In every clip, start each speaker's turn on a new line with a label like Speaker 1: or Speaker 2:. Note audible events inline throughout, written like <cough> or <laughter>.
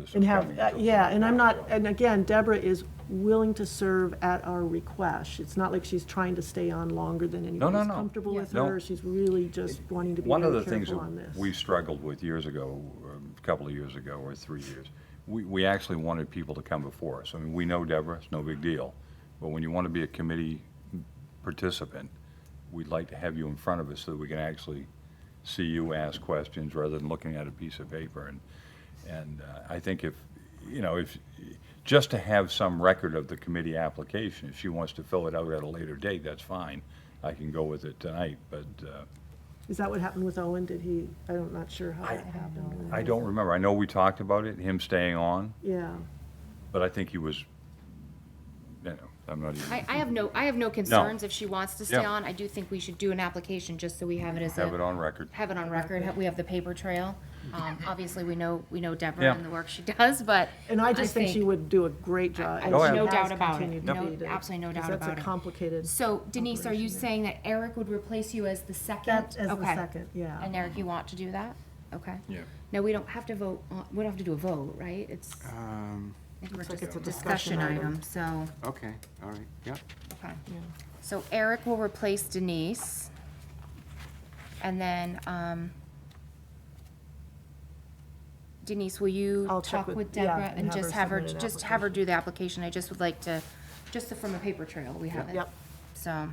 Speaker 1: this.
Speaker 2: And
Speaker 1: is
Speaker 2: have,
Speaker 1: coming
Speaker 2: uh,
Speaker 1: to-
Speaker 2: yeah, and I'm not, and again, Deborah is willing to serve at our request. It's not like she's trying to stay on longer than
Speaker 1: no,
Speaker 2: anybody's
Speaker 1: no.
Speaker 2: comfortable with
Speaker 1: No.
Speaker 2: her. She's really just wanting to be
Speaker 1: One of
Speaker 2: very
Speaker 1: the things
Speaker 2: careful on this.
Speaker 1: that we struggled with years ago, um, a couple of years ago, or three years, we, we actually wanted people to come before us. I mean, we know Deborah, it's no big deal. But when you want to be a committee participant, we'd like to have you in front of us so that we can actually see you ask questions rather than looking at a piece of paper. And, and uh, I think if, you know, if, just to have some record of the committee application, if she wants to fill it out at a later date, that's fine. I can go with it tonight, but, uh,
Speaker 2: Is that what happened with Owen? Did he, I'm not sure how that happened.
Speaker 1: I don't remember. I know we talked about it, him staying on,
Speaker 2: Yeah,
Speaker 1: but I think he was, you know, I'm not even,
Speaker 3: I, I have no, I have no concerns if she wants to stay
Speaker 1: Yeah.
Speaker 3: on. I do think we should do an application just so we have it as a.
Speaker 1: have it on record.
Speaker 3: Have it on record. have- We have the paper trail.
Speaker 2: <laughs>
Speaker 3: Um, obviously, we know, we know Deborah
Speaker 1: Yeah.
Speaker 3: and the work she <laughs> does, but.
Speaker 2: and I just think she would do a great job.
Speaker 3: I-
Speaker 2: and
Speaker 1: Oh,
Speaker 2: she
Speaker 1: yeah.
Speaker 3: no
Speaker 2: has
Speaker 3: doubt about it.
Speaker 2: continued to
Speaker 3: No,
Speaker 2: be there,
Speaker 3: absolutely no
Speaker 2: 'cause
Speaker 3: doubt about
Speaker 2: That's
Speaker 3: it.
Speaker 2: a complicated,
Speaker 3: So Denise, are you saying that Eric would replace you as the second?
Speaker 2: That- as the
Speaker 3: Okay.
Speaker 2: second, yeah.
Speaker 3: And Eric, you want to do that? Okay.
Speaker 4: Yeah.
Speaker 3: No, we don't have to vote, on- we don't have to do a vote, right? It's,
Speaker 4: Um,
Speaker 3: I think we're
Speaker 2: Uh, like
Speaker 3: just
Speaker 2: it's a
Speaker 3: a
Speaker 2: discussion
Speaker 3: discussion item, so,
Speaker 4: okay, all right, yep.
Speaker 3: okay. So Eric will replace Denise. And then, um, Denise, will you
Speaker 2: I'll check
Speaker 3: talk
Speaker 2: with-
Speaker 3: with
Speaker 2: yeah,
Speaker 3: Deborah
Speaker 2: and
Speaker 3: and
Speaker 2: have
Speaker 3: just
Speaker 2: her
Speaker 3: have her,
Speaker 2: submit an
Speaker 3: just have her do the application? I just would like to, just from a paper trail, we have it.
Speaker 2: yep.
Speaker 3: So,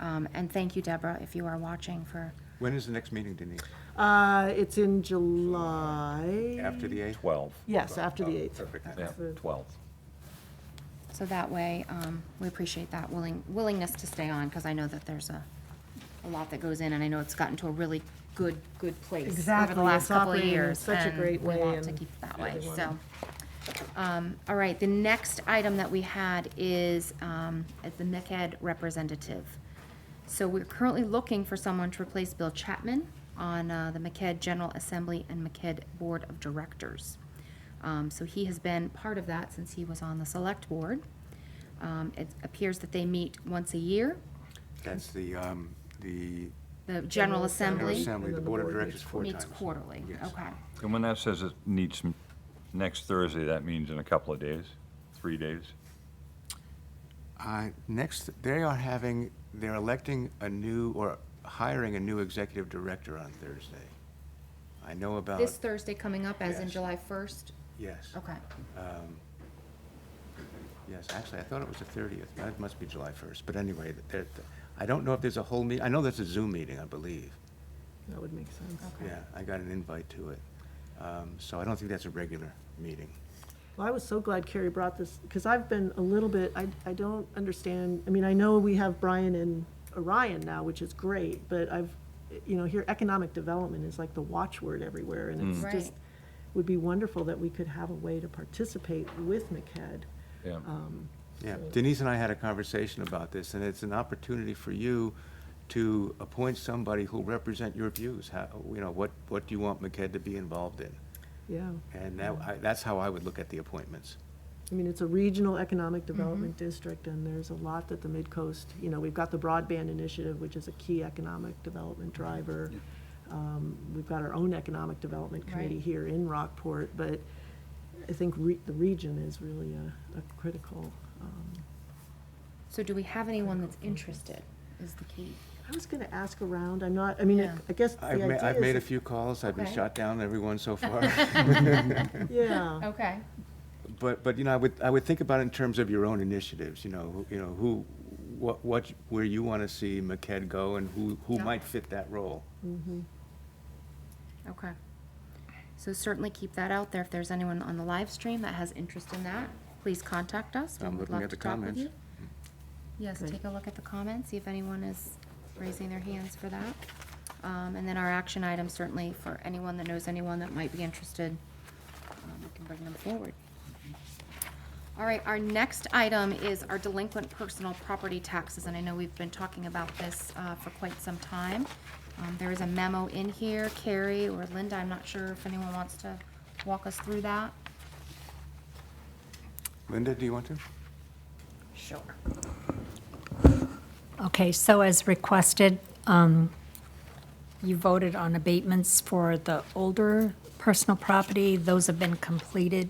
Speaker 3: um, and thank you, Deborah, if you are watching for,
Speaker 4: When is the next meeting, Denise?
Speaker 2: uh, it's in July,
Speaker 4: After the 8th?
Speaker 1: 12.
Speaker 2: yes, after the 8th.
Speaker 4: Perfect.
Speaker 1: Oh, Yeah,
Speaker 2: That's the-
Speaker 1: 12.
Speaker 3: so that way, um, we appreciate that willing, willingness to stay on, because I know that there's a, a lot that goes in, and I know it's gotten to a really good, good place over
Speaker 2: Exactly,
Speaker 3: the last
Speaker 2: it's
Speaker 3: couple of
Speaker 2: operating in
Speaker 3: years.
Speaker 2: such a
Speaker 3: and
Speaker 2: great way,
Speaker 3: We want to
Speaker 2: and
Speaker 3: keep it that way, so. Um, all right, the next item that we had is, um, is the MECAD representative. So we're currently looking for someone to replace Bill Chapman on uh, the McKed General Assembly and McKed Board of Directors. Um, So he has been part of that since he was on the Select Board. Um, It appears that they meet once a year,
Speaker 4: That's the, um, the
Speaker 3: the General
Speaker 4: General
Speaker 3: Assembly
Speaker 4: Assembly, the Board of Directors four times.
Speaker 3: meets quarterly.
Speaker 4: Yes.
Speaker 3: Okay,
Speaker 1: And when that says it needs some, next Thursday, that means in a couple of days, three days?
Speaker 4: Uh, Next, they are having, they're electing a new, or hiring a new executive director on Thursday. I know about,
Speaker 3: This Thursday coming up, as in
Speaker 4: Uh, Yes.
Speaker 3: July 1st?
Speaker 4: yes,
Speaker 3: Okay.
Speaker 4: yes, actually, I thought it was the 30th, that must be July 1st, but anyway, there- I don't know if there's a whole meet, I know there's a Zoom meeting, I believe.
Speaker 2: That would make sense.
Speaker 3: Okay.
Speaker 4: Yeah, I got an invite to it. Um, So I don't think that's a regular meeting.
Speaker 2: Well, I was so glad Carrie brought this, because I've been a little bit, I, I don't understand, I mean, I know we have Brian and Orion now, which is great, but I've, you know, here, economic development is like the watchword everywhere, and it's
Speaker 3: Mm.
Speaker 2: just,
Speaker 3: Right.
Speaker 2: would be wonderful that we could have a way to participate with MCAD.
Speaker 1: Yeah.
Speaker 4: Yeah, Denise and I had a conversation about this, and it's an opportunity for you to appoint somebody who'll represent your views. How, you know, what, what do you want McKed to be involved in?
Speaker 2: Yeah,
Speaker 4: And that, I, that's how I would look at the appointments.
Speaker 2: I mean, it's a regional economic
Speaker 3: Mm-hmm.
Speaker 2: development district, and there's a lot that the Midcoast, you know, we've got the broadband initiative, which is a key economic development
Speaker 3: Mm-hmm.
Speaker 2: driver. Um, We've got our own economic development committee
Speaker 3: Right.
Speaker 2: here in Rockport, but I think re- the region is really a, a critical. um,
Speaker 3: So do we have anyone that's interested, is the key?
Speaker 2: I was gonna ask around, I'm not, I mean, I-
Speaker 3: Yeah.
Speaker 2: I guess the
Speaker 4: I've ma-
Speaker 2: idea
Speaker 4: I've made a
Speaker 2: is-
Speaker 4: few calls, I've been
Speaker 3: Okay.
Speaker 4: shot down every one so far.
Speaker 2: <laughs> Yeah,
Speaker 3: Okay.
Speaker 4: But, but, you know, I would, I would think about it in terms of your own initiatives, you know, who- you know, who, what, what, where you want to see McKed go and who, who
Speaker 3: Yeah.
Speaker 4: might fit that role.
Speaker 3: Okay. So certainly keep that out there. If there's anyone on the live stream that has interest in that, please contact us. We
Speaker 4: I'm
Speaker 3: would
Speaker 4: looking
Speaker 3: love
Speaker 4: at
Speaker 3: to
Speaker 4: the
Speaker 3: talk with
Speaker 4: comments.
Speaker 3: you. Yes,
Speaker 2: Great.
Speaker 3: take a look at the comments, see if anyone is raising their hands for that. Um, and then our action item certainly for anyone that knows anyone that might be interested, um, we can bring them forward. All right, our next item is our delinquent personal property taxes, and I know we've been talking about this uh, for quite some time. Um, There is a memo in here, Carrie or Linda, I'm not sure if anyone wants to walk us through that.
Speaker 4: Linda, do you want to?
Speaker 3: Sure.
Speaker 5: Okay, so as requested, um, you voted on abatements for the older personal property. Those have been completed.